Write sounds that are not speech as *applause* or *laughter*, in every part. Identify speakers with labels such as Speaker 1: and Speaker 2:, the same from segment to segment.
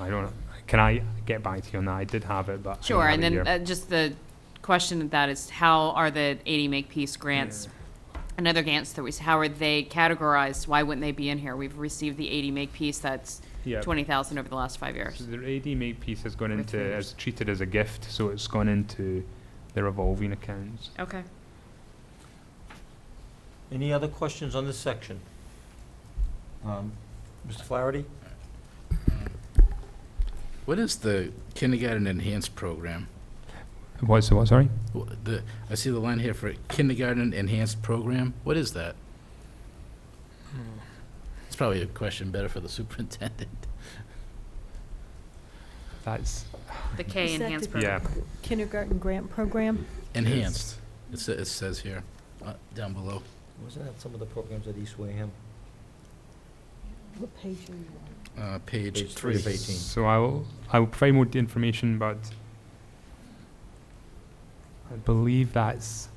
Speaker 1: I don't, can I get back to you on that? I did have it, but. I didn't
Speaker 2: Sure,
Speaker 1: have
Speaker 2: and
Speaker 1: it
Speaker 2: then
Speaker 1: here.
Speaker 2: uh, just the question of that is how are the 80 Make Peace grants and other grants that we, how are they categorized? Why wouldn't they be in here? We've received the 80 Make Peace, that's
Speaker 1: Yeah.
Speaker 2: 20,000 over the last five
Speaker 1: So
Speaker 2: uh, years.
Speaker 1: the AD make piece has gone
Speaker 2: With
Speaker 1: into,
Speaker 2: readers.
Speaker 1: is treated as a gift, so it's gone into the revolving accounts.
Speaker 2: Okay.
Speaker 3: Any other questions on this section? Um, Mr. Flaherty?
Speaker 4: What is the kindergarten enhanced program?
Speaker 1: What's, what, sorry?
Speaker 4: Wh- The, I see the line here for kindergarten enhanced program. What is that? Hmm. It's probably a question better for the *laughs* superintendent.
Speaker 1: That's,
Speaker 2: The K
Speaker 5: Is that
Speaker 2: enhanced
Speaker 5: the-
Speaker 2: program.
Speaker 1: yeah,
Speaker 5: kindergarten grant program.
Speaker 4: Enhanced, it sa- it says here, uh, down below.
Speaker 3: Wasn't that some of the programs at East Wareham?
Speaker 5: What page are you on?
Speaker 4: Uh,
Speaker 3: Page
Speaker 4: Page
Speaker 3: three
Speaker 4: three.
Speaker 3: of 18.
Speaker 1: so I will, I will provide more information, but I believe that's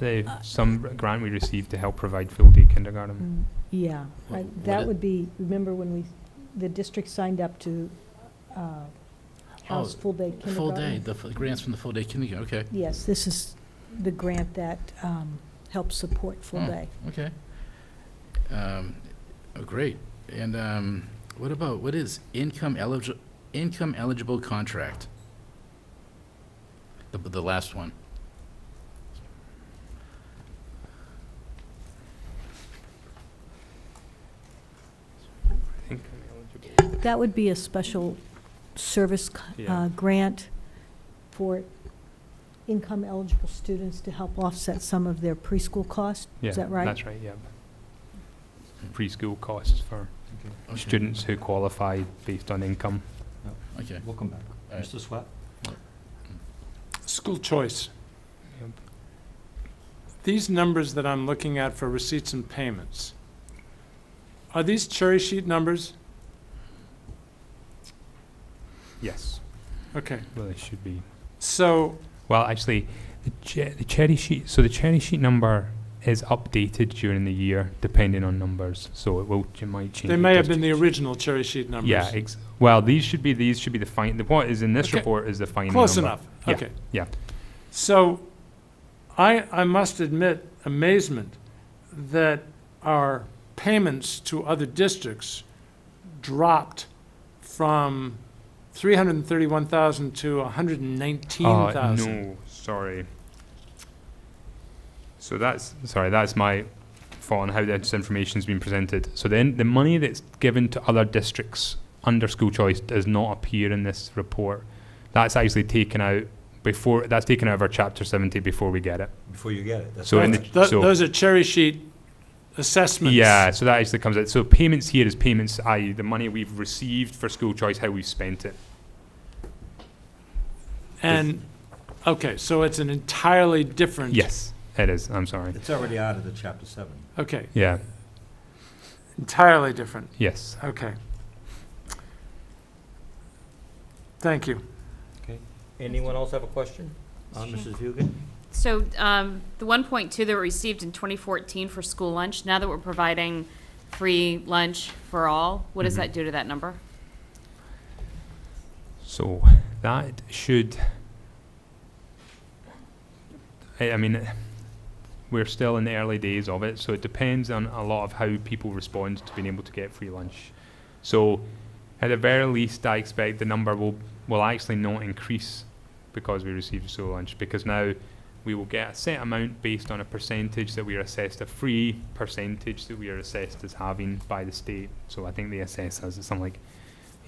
Speaker 1: the,
Speaker 2: Uh,
Speaker 1: some grant we received to help provide full-day kindergarten.
Speaker 5: Mm, Yeah,
Speaker 4: Wha-
Speaker 5: I-
Speaker 4: what
Speaker 5: that
Speaker 4: it-
Speaker 5: would be, remember when we, the district signed up to uh, house
Speaker 4: Oh,
Speaker 5: full-day kindergarten?
Speaker 4: Full day, the f- grants from the full day kindergarten, okay,
Speaker 5: Yes, this is the grant that um, helps support
Speaker 4: Hmm.
Speaker 5: full-day.
Speaker 4: okay. Um, oh, great. And, um, what about, what is income eligible, income eligible contract? The, the last one.
Speaker 1: I think
Speaker 2: Mm.
Speaker 5: That would be a special service c-
Speaker 1: Yeah.
Speaker 5: uh, grant for income-eligible students to help offset some of their preschool costs.
Speaker 1: Yeah,
Speaker 5: Is that right?
Speaker 1: That's right, yeah. Preschool costs for
Speaker 4: Okay,
Speaker 1: students who qualify based on income.
Speaker 4: Okay.
Speaker 3: We'll come back.
Speaker 4: All right.
Speaker 3: Mr. Swett?
Speaker 6: School choice. These numbers that I'm looking at for receipts and payments, are these cherry sheet numbers?
Speaker 1: Yes,
Speaker 6: Okay,
Speaker 1: well, they should be.
Speaker 6: so,
Speaker 1: Well, actually, the, che- the cherry sheet. So the cherry sheet number is updated during the year, depending on numbers. So it will it might change.
Speaker 6: they
Speaker 1: it
Speaker 6: may
Speaker 1: does
Speaker 6: have been the
Speaker 1: change.
Speaker 6: original cherry sheet numbers.
Speaker 1: Yeah. Ex- well, these should be these should be the fine. The what is in this
Speaker 6: Okay.
Speaker 1: report is the final.
Speaker 6: Close
Speaker 1: number.
Speaker 6: enough,
Speaker 1: Yeah,
Speaker 6: okay.
Speaker 1: yeah.
Speaker 6: So, I, I must admit amazement that our payments to other districts dropped from three hundred and thirty-one thousand to a hundred and nineteen
Speaker 1: Uh,
Speaker 6: thousand.
Speaker 1: no, sorry. So that's sorry. That's my fault on how this information's been presented. So then the money that's given to other districts under school choice does not appear in this report. That's actually taken out before. That's taken out of our chapter seventy before we get it.
Speaker 3: Before you get it. that's
Speaker 1: So in
Speaker 3: fine.
Speaker 1: the-
Speaker 6: Tho-
Speaker 1: so-
Speaker 6: Those are cherry sheet assessments.
Speaker 1: Yeah, so that actually comes out. So payments here is payments, i.e., the money we've received for school choice, how we've spent it.
Speaker 6: And, okay, so it's an entirely different.
Speaker 1: Yes, it is. I'm sorry.
Speaker 3: It's already out of the chapter seven.
Speaker 6: Okay,
Speaker 1: Yeah.
Speaker 6: entirely different,
Speaker 1: Yes.
Speaker 6: okay. Thank you.
Speaker 3: Anyone else have a question? Uh, Mrs. Hugan?
Speaker 2: So um, the 1.2 that were received in 2014 for school lunch, now that we're providing free lunch for all, what does
Speaker 1: Mhm.
Speaker 2: that do to that number?
Speaker 1: So that should. I, I mean, we're still in the early days of it, so it depends on a lot of how people respond to being able to get free lunch. So, at the very least, I expect the number will will actually not increase because we receive school lunch because now we will get a set amount based on a percentage that we are assessed a free percentage that we are assessed as having by the state. So I think they assess us at something like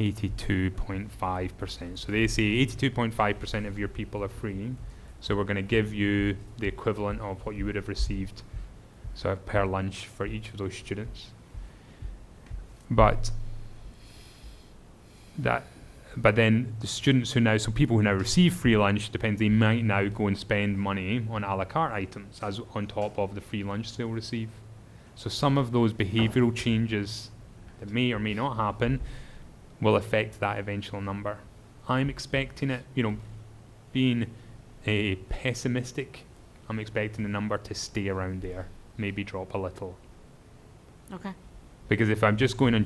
Speaker 1: 82.5%. So they say 82.5% of your people are free. So we're going to give you the equivalent of what you would have received so per lunch for each of those students. But that but then the students who now so people who now receive free lunch depends they might now go and spend money on a la carte items as on top of the free lunch they'll receive. So some of those behavioral changes that may or may not happen will affect that eventual number. I'm expecting it, you know, being a pessimistic, I'm expecting the number to stay around there, maybe drop a little.
Speaker 2: Okay.
Speaker 1: Because if I'm just going on